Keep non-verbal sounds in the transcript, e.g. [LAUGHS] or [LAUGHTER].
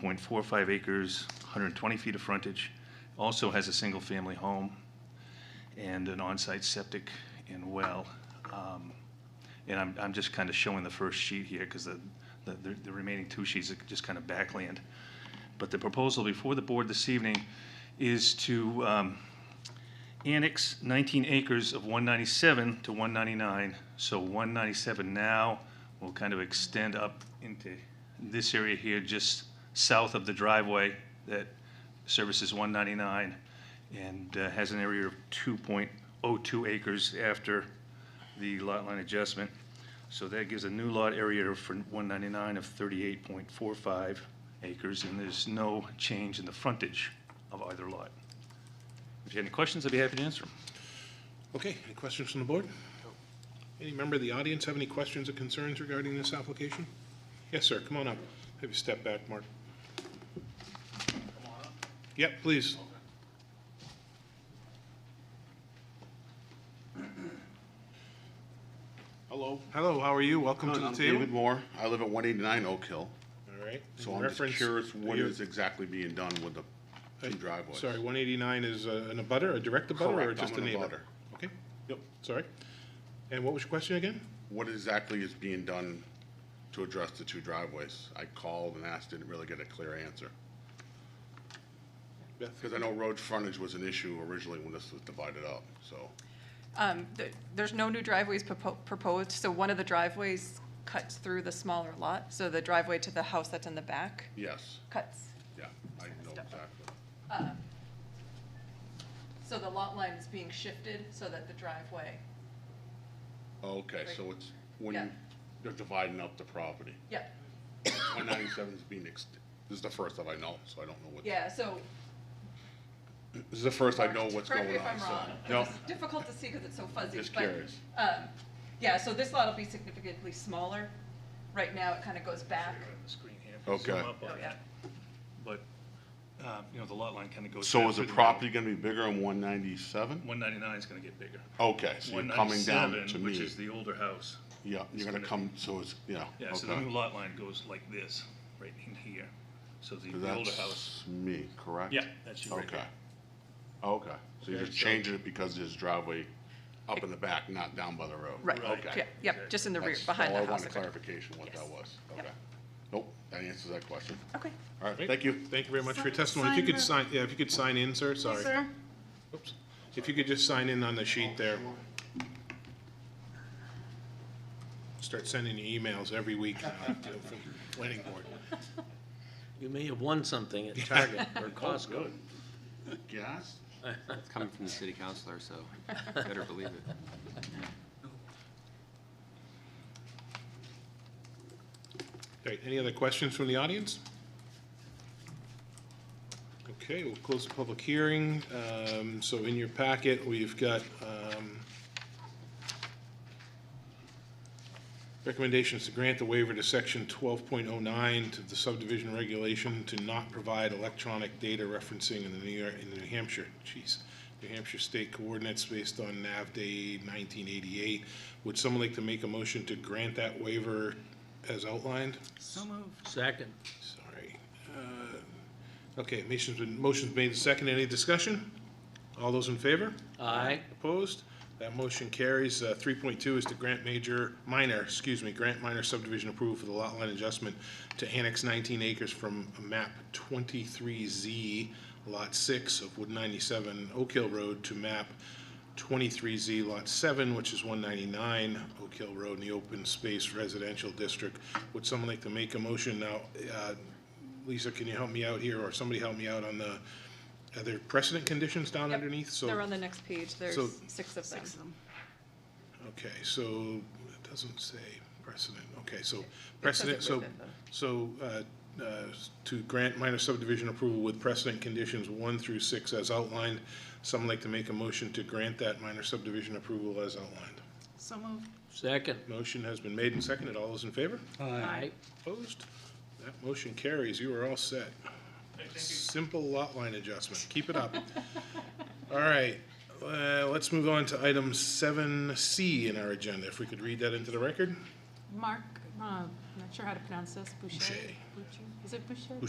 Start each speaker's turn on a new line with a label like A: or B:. A: 19.45 acres, 120 feet of frontage, also has a single-family home and an on-site septic and well. Um, And I'm, I'm just kind of showing the first sheet here because the, the- the the remaining two sheets are just kind of backland. But the proposal before the board this evening is to um, annex 19 acres of 197 to 199. So 197 now will kind of extend up into this area here, just south of the driveway that services 199 and uh, has an area of 2.02 acres after the lot line adjustment. So that gives a new lot area for 199 of 38.45 acres, and there's no change in the frontage of either lot. If you have any questions, I'd be happy to answer them.
B: Okay, any questions from the board? Any member of the audience have any questions or concerns regarding this application? Yes, sir, come on up. Have you step back, Mark? Yep, please.
C: Hello.
B: Hello, how are you? Welcome to the
C: I'm
B: table.
C: David Moore. I live at 189 Oak Hill.
B: All right.
C: So
B: in
C: I'm just
B: reference-
C: curious what
B: you-
C: is exactly being done with the two driveways?
B: Sorry, 189 is uh, an abutter, a direct abutter, or
C: Correct, I'm
B: just a
C: an
B: neighbor?
C: abutter.
B: Okay,
C: Yep.
B: sorry. And what was your question again?
C: What exactly is being done to address the two driveways? I called and asked, didn't really get a clear answer.
B: Beth?
C: Because I know road frontage was an issue originally when this was divided up, so.
D: Um, th- There's no new driveways propo- proposed, so one of the driveways cuts through the smaller lot, so the driveway to the house that's in the back
C: Yes,
D: cuts.
C: yeah, I know
D: Step up.
C: exactly.
D: So the lot line is being shifted so that the driveway,
C: Okay,
D: Right.
C: so it's when
D: Yeah.
C: you- they're dividing up the property.
D: yep,
C: 197 is being, ex- this is the first that I know, so I don't know what.
D: yeah, so.
C: This is the first I know what's going on.
D: Correct me if I'm
C: so-
D: wrong,
C: No.
D: it's difficult to see because it's so fuzzy.
C: Just
D: but,
C: curious.
D: um, Yeah, so this lot will be significantly smaller. Right now, it kind of goes back.
A: The screen here, if you zoom
C: Okay.
A: up on
D: Oh, yeah.
A: it. But, uh, you know, the lot line kind of goes.
C: So
A: back
C: is the
A: through middle.
C: property gonna be bigger in one ninety-seven?
A: 199 is going to get bigger.
C: Okay, so you're coming down
A: 197,
C: to
A: Which
C: me.
A: is the older house.
C: Yeah,
A: is
C: you're gonna
A: gonna
C: come, so it's, yeah,
A: Yeah, so the new
C: okay.
A: lot line goes like this, right in here. So the the older house,
C: That's me, correct?
A: Yeah, that's you right
C: Okay.
A: there.
C: Okay, so you're
A: Okay,
C: just
A: so-
C: changing it because there's driveway up in the back, not down by the road?
A: Right.
D: Yeah,
C: Okay.
D: Yep, just in the rear,
C: That's
D: behind
C: all
D: the
C: I
D: house.
C: wanted clarification what that
D: Yes.
C: was,
D: Yep.
C: okay. Nope, that answers that question.
D: Okay.
C: All right,
B: Great.
C: thank you.
B: Thank you very much for your
E: Sign-
B: testimony. If you
E: sign
B: could
E: the-
B: sign, yeah, if you could sign in, sir, sorry.
E: Sir,
B: Oops. If you could just sign in on the sheet there. Start sending you emails every week now to- from planning board.
F: You may have won something at Target or Costco.
C: Gas?
G: It's coming from the city councilor, so better believe it.
B: Great, any other questions from the audience? Okay, we'll close the public hearing. Um, So in your packet, we've got um, recommendations to grant the waiver to section 12.09 to the subdivision regulation to not provide electronic data referencing in the New York, in the New Hampshire, jeez, New Hampshire state coordinates based on NAV Day 1988. Would someone like to make a motion to grant that waiver as outlined?
E: so moved.
F: Second,
B: Sorry. Uh, Okay, motion's been, motion's made and seconded. Any discussion? All those in favor?
F: aye.
B: Opposed? That motion carries. Uh, 3.2 is to grant major, minor, excuse me, grant minor subdivision approval for the lot line adjustment to annex 19 acres from map 23Z, lot 6 of Wood 97 Oak Hill Road to map 23Z, lot 7, which is 199 Oak Hill Road in the open space residential district. Would someone like to make a motion now? Uh, Lisa, can you help me out here, or somebody help me out on the, are there precedent conditions down
D: Yep.
B: underneath? So.
D: They're on the next page, there's
B: so-
D: six of them.
E: Six of them.
B: Okay, so it doesn't say precedent. Okay, so precedent, so,
D: within them.
B: so uh, uh, to grant minor subdivision approval with precedent conditions one through six as outlined. Someone like to make a motion to grant that minor subdivision approval as outlined.
E: So moved.
F: Second,
B: Motion has been made and seconded. All those in favor?
F: aye.
B: Opposed? That motion carries. You are all set. Simple lot line adjustment. Keep it up. [LAUGHS] All right, uh, let's move on to item seven C in our agenda. If we could read that into the record?
E: Mark, uh, not sure how to pronounce this, Boucher?
B: Boucher.
E: Boucher. Is it Boucher?